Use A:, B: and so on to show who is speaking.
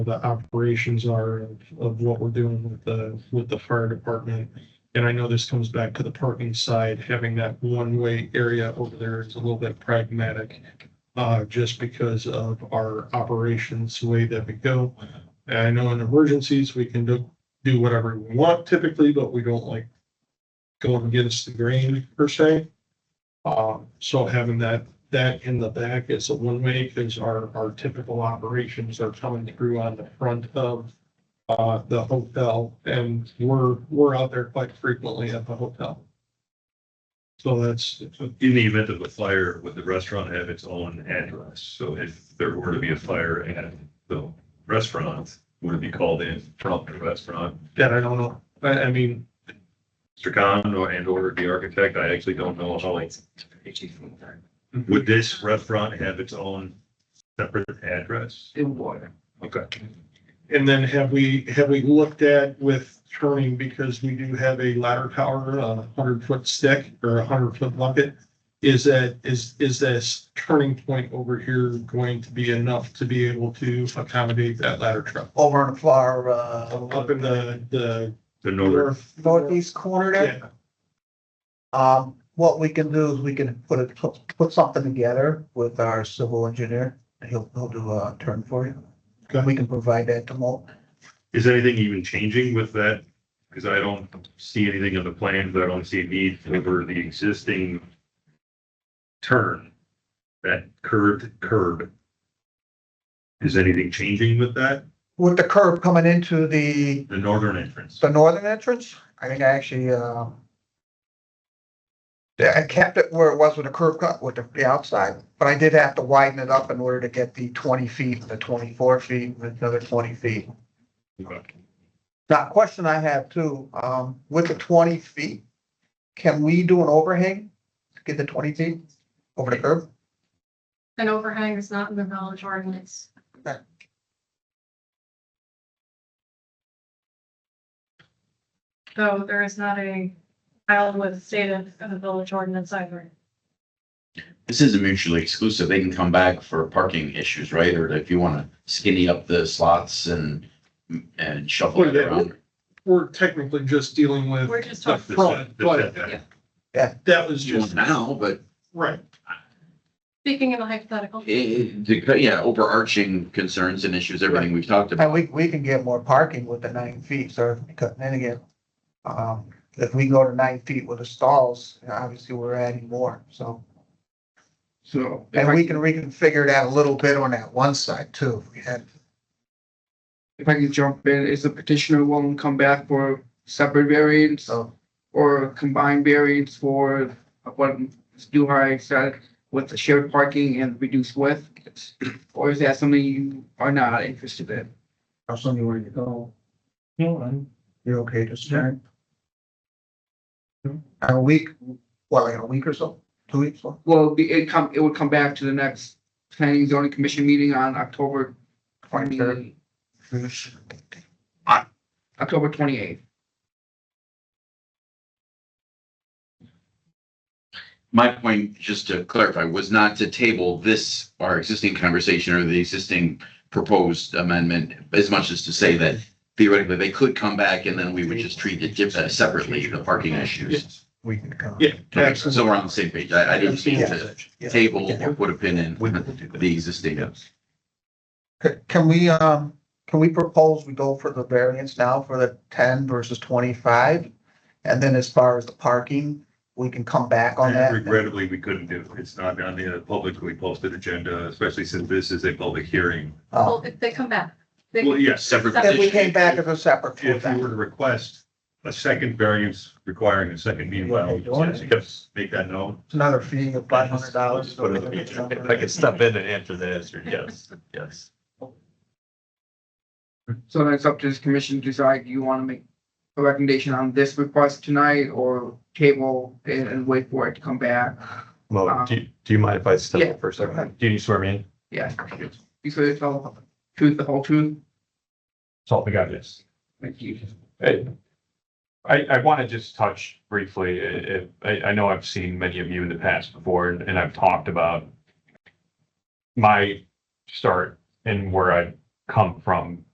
A: the operations are of, of what we're doing with the, with the fire department. And I know this comes back to the parking side, having that one-way area over there is a little bit pragmatic. Uh, just because of our operations, the way that we go. And I know in emergencies, we can do, do whatever we want typically, but we don't like going against the grain per se. Uh, so having that, that in the back is a one-way because our, our typical operations are coming through on the front of uh, the hotel and we're, we're out there quite frequently at the hotel. So that's,
B: In the event of a fire, would the restaurant have its own address? So if there were to be a fire at the restaurant, would it be called in from the restaurant?
A: that I don't know. I, I mean,
B: Mr. Khan or and or the architect, I actually don't know how. Would this restaurant have its own separate address?
C: It would.
B: Okay.
A: And then have we, have we looked at with turning, because we do have a ladder tower, a hundred foot stick or a hundred foot bucket? Is that, is, is this turning point over here going to be enough to be able to accommodate that ladder truck?
C: Over in the far, uh.
A: Up in the, the
B: The northern,
A: north.
C: Northeast corner there.
A: Yeah,
C: Um, what we can do is we can put it, put, put something together with our civil engineer. He'll, he'll do a turn for you.
A: Okay.
C: We can provide that to Mo.
B: is anything even changing with that? Because I don't see anything in the plans. I don't see a need over the existing turn, that curved curb. Is anything changing with that?
C: With the curb coming into the,
B: The northern entrance?
C: the northern entrance, I think I actually, uh. Yeah, I kept it where it was with the curb cut with the, the outside, but I did have to widen it up in order to get the twenty feet, the twenty-four feet, and another twenty feet. Now, question I have too, um, with the twenty feet, can we do an overhang to get the twenty feet over the curb?
D: An overhang is not in the village ordinance. So there is not a filed with state of of the village ordinance either.
E: This isn't mutually exclusive. They can come back for parking issues, right? Or if you want to skinny up the slots and, and shuffle
A: Well,
E: it
A: yeah.
E: around.
A: We're technically just dealing with.
D: We're just
A: the
D: talking-
A: front, But
B: The
A: that was
E: You want
A: just,
E: Now, but
A: right,
D: Speaking in a hypothetical,
E: it, it- the- yeah, overarching concerns and issues, everything we've talked about.
C: And we, we can get more parking with the nine feet, so because then again, um, if we go to nine feet with the stalls, obviously we're adding more, so.
F: So if
C: And
F: I,
C: we can reconfigure that a little bit on that one side too, if we had,
F: if I can jump in, is the petitioner willing to come back for separate variants
C: so.
F: or combined variants for what Duhai said with the shared parking and reduced width? Or is that something you are not interested in?
C: I'll send you where you go. You're okay to start? A week, what, like in a week or so, two weeks, or?
F: Well, it'd be- it come, it would come back to the next planning and zoning commission meeting on October twenty, October twenty-eighth.
E: My point, just to clarify, was not to table this, our existing conversation or the existing proposed amendment as much as to say that theoretically they could come back and then we would just treat it dif- uh, separately, the parking issues.
C: We can come.
A: yeah.
E: Okay, So we're on the same page. I, I didn't mean to.
C: Yeah.
E: table or put a pin in the existing.
C: C- Can we, um, can we propose we go for the variance now for the ten versus twenty-five? And then as far as the parking, we can come back on that.
B: Regrettably, we couldn't do, it. it's not on the publicly posted agenda, especially since this is a public hearing.
D: well,
C: Uh,
D: if they come back. they-
B: Well, yes,
E: Separate
C: If we
E: petition.
C: came back as a separate.
B: if you were to request a second variance requiring a second meanwhile, yes, make that known.
C: It's another fee of five hundred dollars.
B: Put it in the agenda.
G: If I could step in and answer that, answer yes, yes.
F: So then it's up to this commission to decide, do you want to make a recommendation on this request tonight or table it and wait for it to come back?
G: Mo, do, you- do you mind if I step
F: Yeah,
G: in for a
F: go ahead.
G: second? Do you swear me in?
F: Yeah. You said it's all truth, the whole truth?
G: Salt the God, yes.
F: Thank you.
G: Hey, I, I want to just touch briefly, uh, uh, I, I know I've seen many of you in the past before, and and I've talked about my start and where I come from